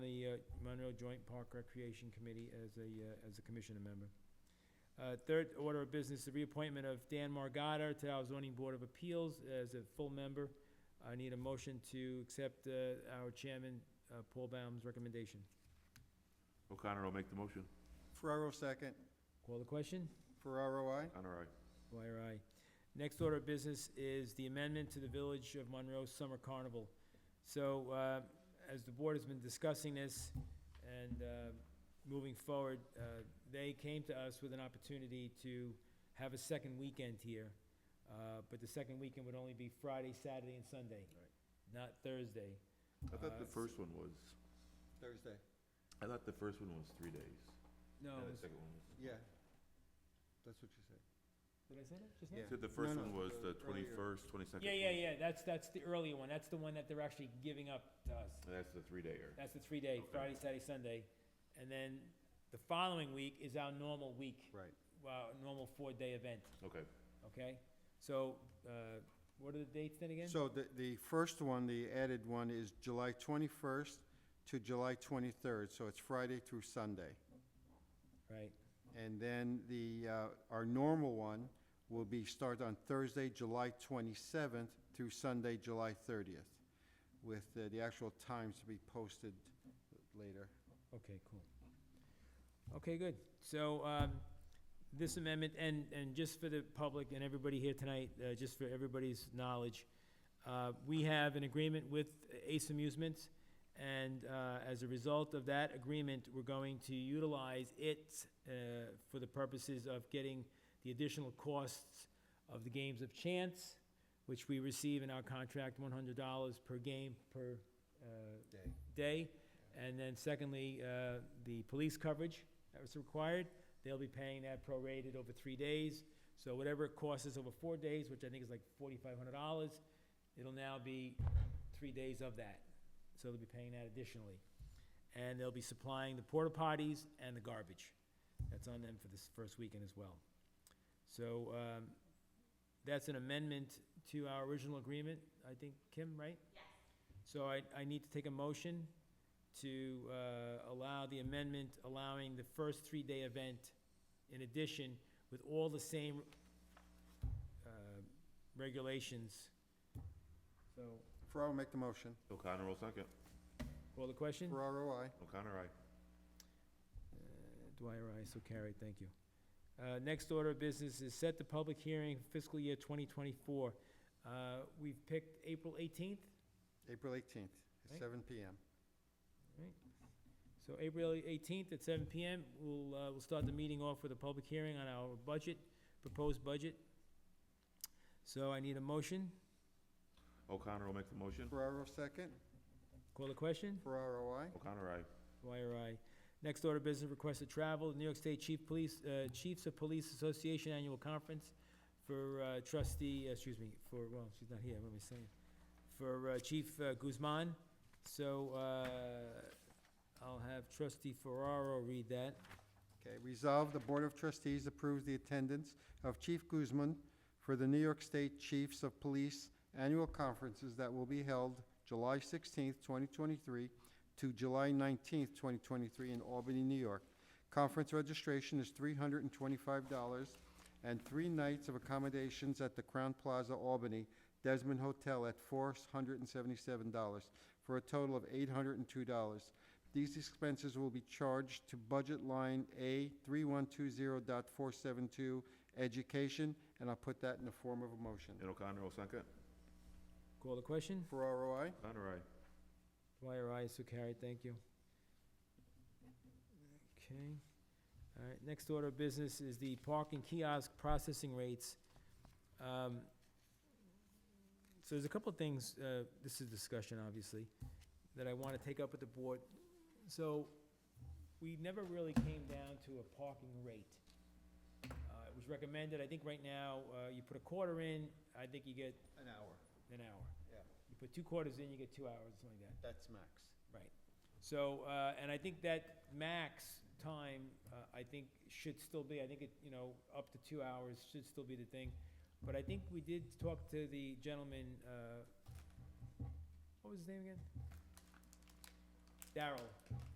uh, Monroe Joint Park Recreation Committee as a, uh, as a commissioner member. Uh, Third order of business, the reappointment of Dan Margada to our zoning board of appeals as a full member. I need a motion to accept uh, our chairman, uh, Paul Baum's recommendation. O'Connor will make the motion. Ferraro, second. Call the question? Ferraro, I. O'Connor, aye. Dwyer, aye. Next order of business is the amendment to the Village of Monroe Summer Carnival. So, uh, as the board has been discussing this and, uh, moving forward, uh, they came to us with an opportunity to have a second weekend here. Uh, but the second weekend would only be Friday, Saturday, and Sunday, not Thursday. I thought the Uh, first one was, Thursday. I thought the first one was three days. No, And the it's- second one was- Yeah. That's what you said. did I say that just now? Yeah. You Said the No, first no, one was the earlier. twenty-first, twenty-second. Yeah, yeah, yeah, that's, that's the earlier one, that's the one that they're actually giving up to us. That's the three-dayer. That's the three-day, Okay. Friday, Saturday, Sunday. And then the following week is our normal week, Right. our normal four-day event, Okay. okay? So, uh, what are the dates then again? So the, the first one, the added one, is July twenty-first to July twenty-third, so it's Friday through Sunday. Right, And then the, uh, our normal one will be start on Thursday, July twenty-seventh through Sunday, July thirtieth, with uh, the actual times to be posted later. okay, cool. Okay, good. So, um, this amendment, and, and just for the public and everybody here tonight, uh, just for everybody's knowledge, uh, we have an agreement with Ace Amusements, and uh, as a result of that agreement, we're going to utilize it uh, for the purposes of getting the additional costs of the games of chance, which we receive in our contract, one hundred dollars per game per uh, Day. day. And then secondly, uh, the police coverage that was required, they'll be paying that prorated over three days. So whatever it costs us over four days, which I think is like forty-five hundred dollars, it'll now be three days of that. So they'll be paying that additionally. And they'll be supplying the porta potties and the garbage. That's on them for this first weekend as well. So, um, that's an amendment to our original agreement, I think, Kim, right? Yes. So I, I need to take a motion to, uh, allow the amendment allowing the first three-day event in addition with all the same, uh, regulations. So, Ferraro, make the motion. O'Connor will second. call the question? Ferraro, I. O'Connor, aye. Uh, Dwyer, aye, so carried, thank you. Uh, Next order of business is set the public hearing fiscal year 2024. Uh, We've picked April 18th, April eighteenth, Right. seven PM. so April 18th at 7 PM, we'll, uh, we'll start the meeting off with a public hearing on our budget, proposed budget. So I need a motion, O'Connor will make the motion. Ferraro, second. call the question? Ferraro, I. O'Connor, aye. Dwyer, aye. Next order of business, request of travel, New York State Chief Police, uh, Chiefs of Police Association Annual Conference for uh, trustee, uh, excuse me, for, well, she's not here, what am I saying? For uh, Chief uh, Guzman. So uh, I'll have trustee Ferraro read that. Okay, resolved, the Board of Trustees approves the attendance of Chief Guzman for the New York State Chiefs of Police Annual Conferences that will be held July sixteenth, twenty twenty-three to July nineteenth, twenty twenty-three in Albany, New York. Conference registration is three hundred and twenty-five dollars and three nights of accommodations at the Crown Plaza Albany Desmond Hotel at four hundred and seventy-seven dollars for a total of eight hundred and two dollars. These expenses will be charged to budget line A 3120.472, education, and I'll put that in the form of a motion. And O'Connor will second. Call the question? Ferraro, I. O'Connor, aye. Dwyer, aye, so carried, thank you. Okay, all right, next order of business is the parking kiosk processing rates. Um, So there's a couple of things, uh, this is discussion, obviously, that I want to take up with the board. So, we never really came down to a parking rate. Uh, It was recommended, I think right now, uh, you put a quarter in, I think you get An hour, an hour. Yeah. You put two quarters in, you get two hours, something like that. that's max. So, uh, and I think that max time, uh, I think should still be, I think it, you know, up to two hours should still be the thing. But I think we did talk to the gentleman, uh, what was his name again? Darrell.